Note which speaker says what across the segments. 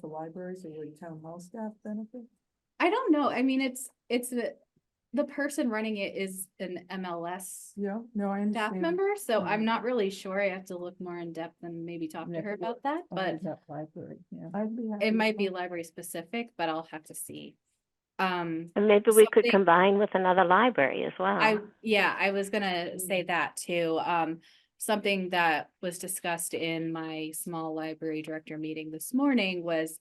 Speaker 1: the libraries or would town hall staff benefit?
Speaker 2: I don't know. I mean, it's, it's the, the person running it is an MLS
Speaker 1: Yeah, no, I
Speaker 2: staff
Speaker 1: understand.
Speaker 2: member, so I'm
Speaker 1: Mhm.
Speaker 2: not really sure. I have to look more in depth and maybe talk to
Speaker 3: Yeah,
Speaker 2: her
Speaker 3: well,
Speaker 2: about
Speaker 1: Oh,
Speaker 2: that, but
Speaker 3: library, yeah.
Speaker 1: I'd be happy
Speaker 2: it
Speaker 1: to
Speaker 2: might be
Speaker 1: talk-
Speaker 2: library specific, but I'll have to see. Um,
Speaker 4: And maybe we could
Speaker 2: Something-
Speaker 4: combine with another library as well.
Speaker 2: I, yeah, I was gonna say
Speaker 1: Mm.
Speaker 2: that too. Um, something that was discussed in my small library director meeting this morning was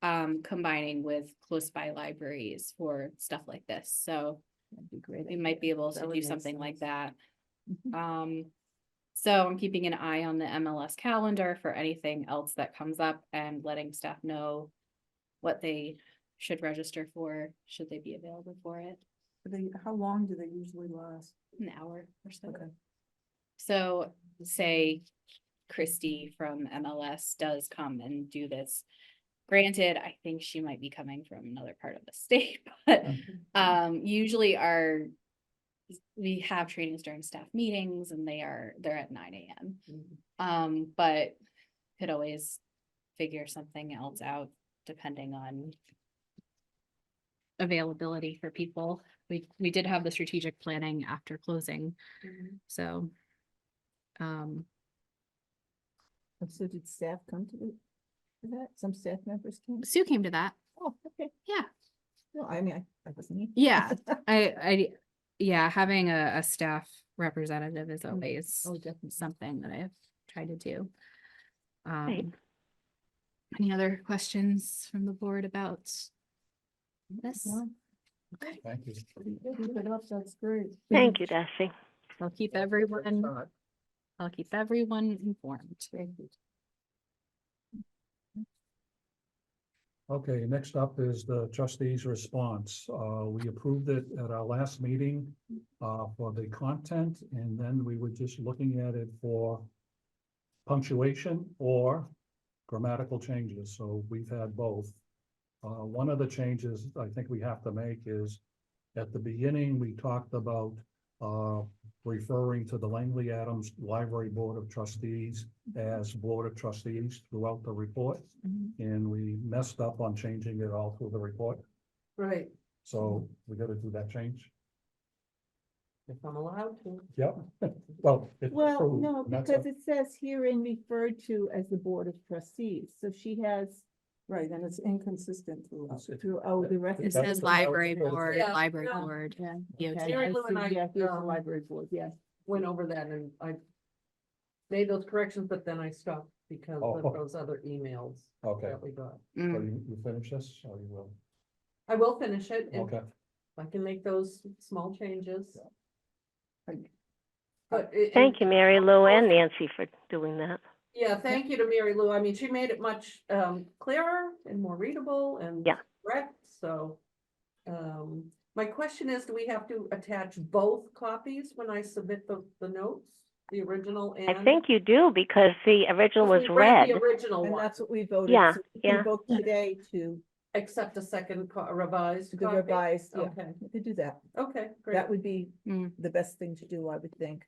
Speaker 2: um, combining with close by libraries for stuff like this, so
Speaker 3: That'd be great.
Speaker 2: we might be able
Speaker 3: That
Speaker 2: to
Speaker 3: would
Speaker 2: do
Speaker 3: make
Speaker 2: something like that.
Speaker 3: Mhm.
Speaker 2: Um, so I'm keeping an eye on the MLS calendar for anything else that comes up and letting staff know what they should register for, should they be available for it,
Speaker 1: They, how long do they usually last?
Speaker 2: an hour or so.
Speaker 1: Okay.
Speaker 2: So say Christy from MLS does come and do this. Granted, I think she might be coming from another part of the state, but um, usually our. We have trainings during staff meetings and they are, they're at nine AM. Um, but could always figure something else out depending on. Availability for people. We, we did have the strategic planning after closing, so. Um,
Speaker 3: So did staff come to the- to that? Some staff members came?
Speaker 2: Sue came to that.
Speaker 3: Oh, okay.
Speaker 2: Yeah.
Speaker 3: No, I mean, I, I wasn't. here.
Speaker 2: Yeah, I, I, yeah, having a, a staff representative is
Speaker 3: Mm.
Speaker 2: Mm-hmm. always
Speaker 3: Oh, definitely.
Speaker 2: something that I've tried to do.
Speaker 4: Right.
Speaker 2: Um. Any other questions from the board about this?
Speaker 3: No.
Speaker 2: Okay,
Speaker 5: Thank you.
Speaker 1: Keep it up, that's great.
Speaker 6: Mm-hmm.
Speaker 4: Thank you, Darcy.
Speaker 2: I'll keep everyone, I'll keep everyone informed.
Speaker 5: Okay, next up is the trustees' response. Uh, we approved it at our last meeting uh, for the content, and then we were just looking at it for punctuation or grammatical changes, so we've had both. Uh, one of the changes I think we have to make is at the beginning, we talked about uh, referring to the Langley Adams Library Board of Trustees as Board of Trustees throughout the report
Speaker 3: Mhm.
Speaker 5: and we messed up on changing it all through the report,
Speaker 1: Right.
Speaker 5: so we gotta do that change.
Speaker 6: If I'm allowed to.
Speaker 5: Yep, well. it's
Speaker 3: Well,
Speaker 5: approved,
Speaker 3: no,
Speaker 5: and that's
Speaker 3: because
Speaker 5: a-
Speaker 3: it says herein referred to as the Board of Trustees, so she has
Speaker 1: Right, and it's inconsistent throughout.
Speaker 5: it's- it's-
Speaker 3: throughout the rest.
Speaker 5: It
Speaker 3: of
Speaker 2: It
Speaker 5: That's
Speaker 2: says
Speaker 5: what I was
Speaker 2: library
Speaker 5: gonna
Speaker 2: board,
Speaker 6: say. Yeah,
Speaker 2: library
Speaker 6: yeah.
Speaker 2: board. E
Speaker 3: Yeah.
Speaker 2: Yeah,
Speaker 3: okay,
Speaker 6: Mary
Speaker 3: I
Speaker 6: Lou and
Speaker 3: see,
Speaker 6: I,
Speaker 3: yeah, here's the
Speaker 6: um,
Speaker 3: library board, yeah.
Speaker 6: Went over that and I made those corrections, but then I stopped because
Speaker 5: Oh,
Speaker 6: of
Speaker 5: okay.
Speaker 6: those other emails
Speaker 5: Okay,
Speaker 6: that we got.
Speaker 5: so
Speaker 2: Mm,
Speaker 5: you, you finish this, or you will?
Speaker 6: I will finish it and
Speaker 5: Okay,
Speaker 6: I can make those small changes.
Speaker 1: Thank-
Speaker 6: But it.
Speaker 4: Thank you, Mary Lou and Nancy for doing that.
Speaker 6: Yeah, thank you to Mary Lou. I mean, she made it much um clearer and more readable and
Speaker 4: Yeah.
Speaker 6: correct, so. Um, my question is, do we have to attach both copies when I submit the the notes, the original and?
Speaker 4: I think you do because the original
Speaker 6: Because
Speaker 4: was
Speaker 6: we
Speaker 4: read.
Speaker 6: read The original
Speaker 3: And
Speaker 6: one,
Speaker 3: that's what we voted.
Speaker 4: Yeah,
Speaker 3: so we can
Speaker 4: yeah.
Speaker 3: Vote today to
Speaker 6: except a second co- revised
Speaker 3: the
Speaker 6: copy.
Speaker 3: revised, yeah,
Speaker 6: Okay,
Speaker 3: we could do that.
Speaker 6: okay, Oh. great.
Speaker 3: That would be
Speaker 2: Mm.
Speaker 3: the best thing to do, I would think.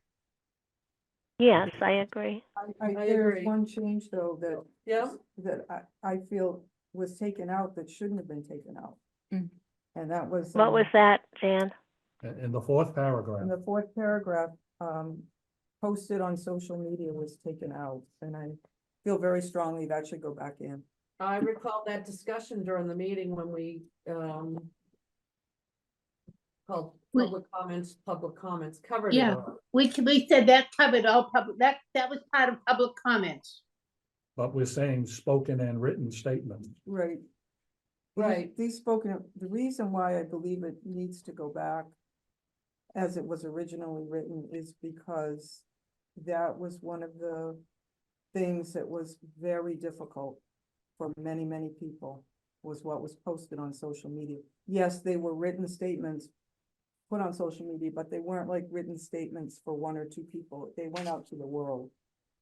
Speaker 4: Yes, I agree.
Speaker 1: I, I,
Speaker 6: I
Speaker 1: there's
Speaker 6: agree.
Speaker 1: one change though that
Speaker 6: Yeah,
Speaker 1: that I, I feel was taken out that shouldn't have been taken out.
Speaker 2: Mm.
Speaker 1: And that was.
Speaker 4: What
Speaker 1: um,
Speaker 4: was that, Jan?
Speaker 5: in, in the fourth
Speaker 1: In
Speaker 5: paragraph,
Speaker 1: the fourth paragraph, um, posted on social media was taken out, and I feel very strongly that should go back in.
Speaker 6: I recall that discussion during the meeting when we um. Called
Speaker 7: Wait.
Speaker 6: public comments, public comments covered. it
Speaker 7: Yeah.
Speaker 6: all.
Speaker 7: We, c- we said that covered all public, that, that was part of public comments.
Speaker 5: but we're saying spoken and written statements.
Speaker 1: Right. These-
Speaker 6: Right.
Speaker 1: These spoken, the reason why I believe it needs to go back as it was originally written is because that was one of the things that was very difficult for many, many people, was what was posted on social media. Yes, they were written statements put on social media, but they weren't like written statements for one or two people. They went out to the world.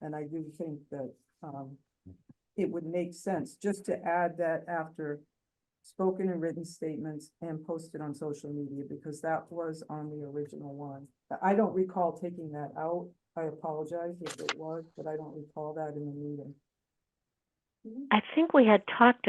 Speaker 1: And I do think that, um, it would make sense just to add that after spoken and written statements and posted on social media, because that was on the original one. But I don't recall taking that out. I apologize if it was, but I don't recall that in the meeting.
Speaker 4: I think we had talked